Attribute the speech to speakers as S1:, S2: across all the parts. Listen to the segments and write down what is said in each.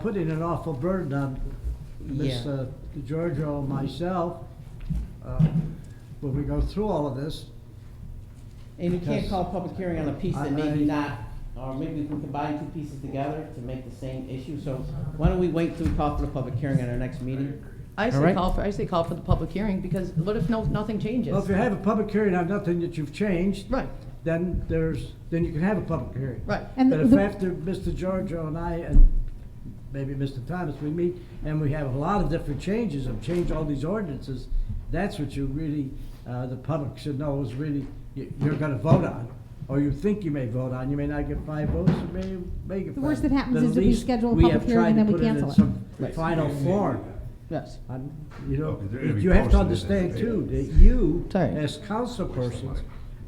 S1: putting an awful burden on Ms.
S2: Yeah.
S1: uh, DeGiorgio and myself uh, when we go through all of this.
S2: And you can't
S1: Because-
S2: call public hearing on a piece that
S1: I- I-
S2: maybe not, or maybe we can combine two pieces together to make the same issue, so why don't we wait till we call for the public hearing at our next meeting?
S3: I
S2: All
S3: say
S2: right.
S3: call for, I say call for the public hearing, because what if no, nothing changes?
S1: Well, if you have a public hearing on nothing that you've changed,
S3: Right,
S1: then there's, then you can have a public hearing.
S3: right.
S4: And
S1: But if
S4: the,
S1: after Mr. Giorgio and I and maybe Mr. Thomas, we meet and we have a lot of different changes and change all these ordinances, that's what you really, uh, the public should know is really, you- you're gonna vote on, or you think you may vote on. You may not get five votes, you may, may get
S4: The
S1: five.
S4: worst that happens
S1: But at
S4: is that we
S1: least
S4: schedule a
S1: we
S4: public
S1: have
S4: hearing and
S1: tried to
S4: then we
S1: put it in
S4: cancel it.
S1: some
S2: Right.
S1: Final form.
S2: Yes.
S1: I'm- You know,
S5: Oh, 'cause they're gonna be
S1: you have to
S5: posted in
S1: understand
S5: the
S1: too, that
S5: papers.
S1: you,
S2: Sorry.
S1: as council persons,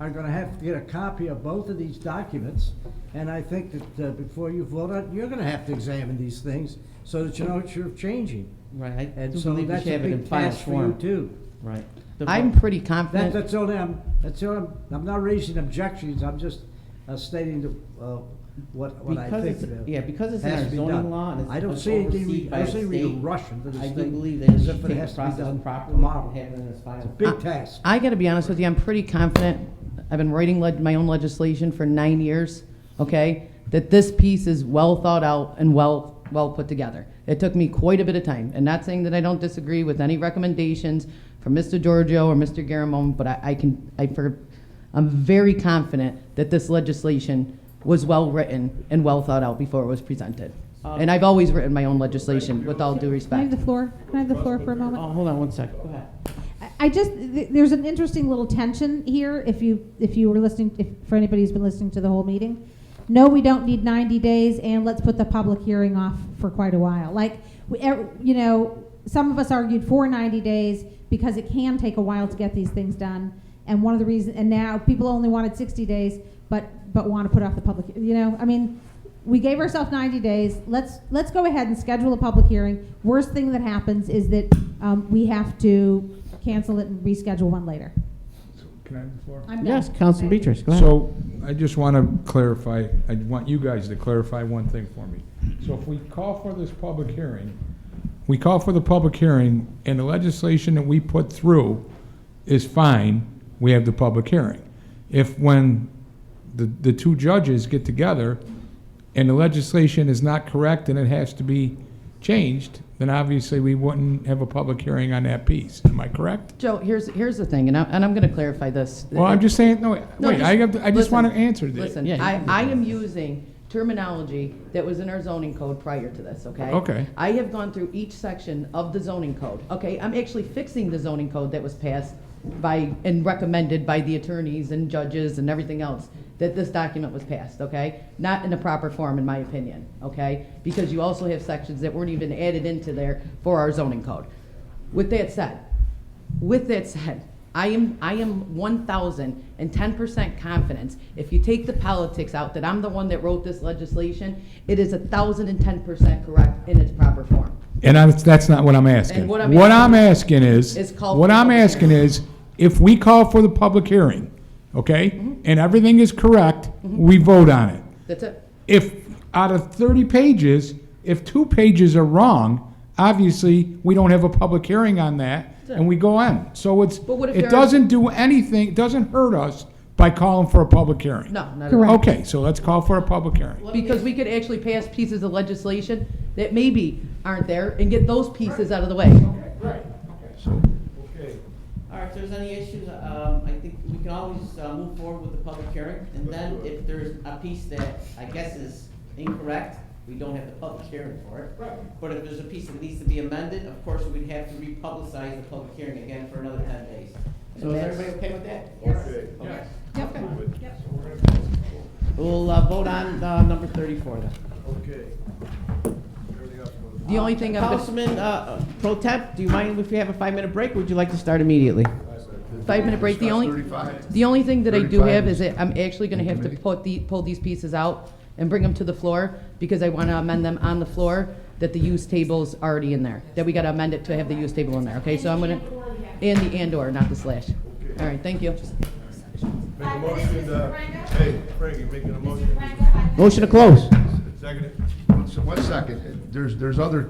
S1: are gonna have to get a copy of both of these documents. And I think that uh, before you vote on, it, you're gonna have to examine these things so that you know what you're changing.
S2: Right, I
S1: And
S2: do
S1: so
S2: believe we
S1: that's
S2: should
S1: a
S2: have it in
S1: big
S2: final
S1: task for you
S2: form.
S1: too.
S2: Right. The
S3: I'm
S2: vote-
S3: pretty
S1: That,
S3: confident,
S1: that's all I'm, that's all I'm, I'm not raising objections, I'm just uh, stating the, uh, what, what I
S2: Because
S1: think.
S2: it's-
S1: that
S2: yeah, because it's in
S1: has
S2: our
S1: to be
S2: zoning
S1: done.
S2: law and it's-
S1: I don't
S2: it's
S1: see anything,
S2: overseen
S1: I don't
S2: by
S1: see
S2: the
S1: we
S2: state,
S1: rush into this
S2: I
S1: thing.
S2: do believe that it
S1: as
S2: should
S1: if
S2: take
S1: has
S2: the
S1: to be
S2: process
S1: done
S2: properly
S1: tomorrow.
S2: and have it in its final.
S1: It's a big task.
S3: I gotta be honest with you, I'm pretty confident, I've been writing leg- my own legislation for nine years, okay? That this piece is well thought out and well, well put together. It took me quite a bit of time, and not saying that I don't disagree with any recommendations from Mr. Giorgio or Mr. Garamone, but I, I can, I, for, I'm very confident that this legislation was well-written and well thought out before it was presented.
S2: Um,
S3: And I've always written my own legislation, with all due
S4: can I have
S3: respect.
S4: the floor? Can I have the floor for a
S2: Oh,
S4: moment?
S2: hold on one second, go ahead.
S4: I- I just, th- there's an interesting little tension here, if you, if you were listening, if, for anybody who's been listening to the whole meeting. No, we don't need 90 days, and let's put the public hearing off for quite a while. Like, we- ev- you know, some of us argued for 90 days because it can take a while to get these things done. And one of the reasons, and now people only wanted 60 days, but, but want to put off the public, you know, I mean, we gave ourselves 90 days. Let's, let's go ahead and schedule a public hearing. Worst thing that happens is that um, we have to cancel it and reschedule one later.
S6: Can I have the floor?
S4: I'm done.
S2: Yes, Councilman Beatrice, go ahead.
S6: So I just want to clarify, I want you guys to clarify one thing for me. So if we call for this public hearing, we call for the public hearing and the legislation that we put through is fine, we have the public hearing. If when the, the two judges get together and the legislation is not correct and it has to be changed, then obviously we wouldn't have a public hearing on that piece. Am I correct?
S3: Joe, here's, here's the thing, and I, and I'm gonna clarify this.
S6: Well, I'm just saying, no,
S3: No,
S6: wait, I have, to- I just
S3: listen,
S6: want to answer this.
S3: Listen,
S2: Yeah,
S3: I,
S2: you can
S3: I am using terminology that was in our zoning code prior to this, okay?
S6: Okay.
S3: I have gone through each section of the zoning code, okay? I'm actually fixing the zoning code that was passed by, and recommended by the attorneys and judges and everything else, that this document was passed, okay? Not in a proper form, in my opinion, okay? Because you also have sections that weren't even added into there for our zoning code. With that said, with that said, I am, I am one thousand and ten percent confidence, if you take the politics out, that I'm the one that wrote this legislation, it is a thousand and ten percent correct in its proper form.
S6: And I, that's not what I'm asking.
S3: And what I'm
S6: What
S3: asking
S6: I'm asking is,
S3: is call
S6: what
S3: for the
S6: I'm
S3: public
S6: asking
S3: hearing.
S6: is, if we call for the public hearing, okay,
S3: Mm-hmm.
S6: and everything is correct, we vote on it.
S3: That's it.
S6: If, out of 30 pages, if two pages are wrong, obviously, we don't have a public hearing on that, and we go on. So it's,
S3: But what if there
S6: it
S3: are-
S6: doesn't do anything, it doesn't hurt us by calling for a public hearing.
S3: No, not at all.
S4: Correct.
S6: Okay, so let's call for a public hearing.
S3: Because we could actually pass pieces of legislation that maybe aren't there and get those pieces out of the way.
S2: All right, if there's any issues, um, I think we can always, uh, move forward with the public hearing, and then if there's a piece that I guess is incorrect, we don't have the public hearing for it. Right. But if there's a piece that needs to be amended, of course, we'd have to republicize the public hearing again for another ten days. So is everybody okay with that? Yes.
S4: Yep.
S2: We'll, uh, vote on, uh, number thirty-four then.
S5: Okay. Everything else was-
S3: The only thing I'm, gonna-
S2: Councilman, uh, Pro Temp, do you mind if we have a five-minute break, or would you like to start immediately?
S3: five-minute break, the only.
S5: Thirty-five.
S3: The only thing that I do
S6: 35
S3: have is
S6: is-
S3: that I'm actually gonna have to
S6: Committee.
S3: put the, pull these pieces out and bring them to the floor, because I wanna amend them on the floor, that the use table's already in there, that we gotta amend it to have the use table in there, okay? So I'm gonna, and the and/or, not the slash. All right, thank you.
S5: Make a motion, uh, hey, Frankie, making a motion.
S2: Motion to close.
S5: Second. it. So one second, there's, there's other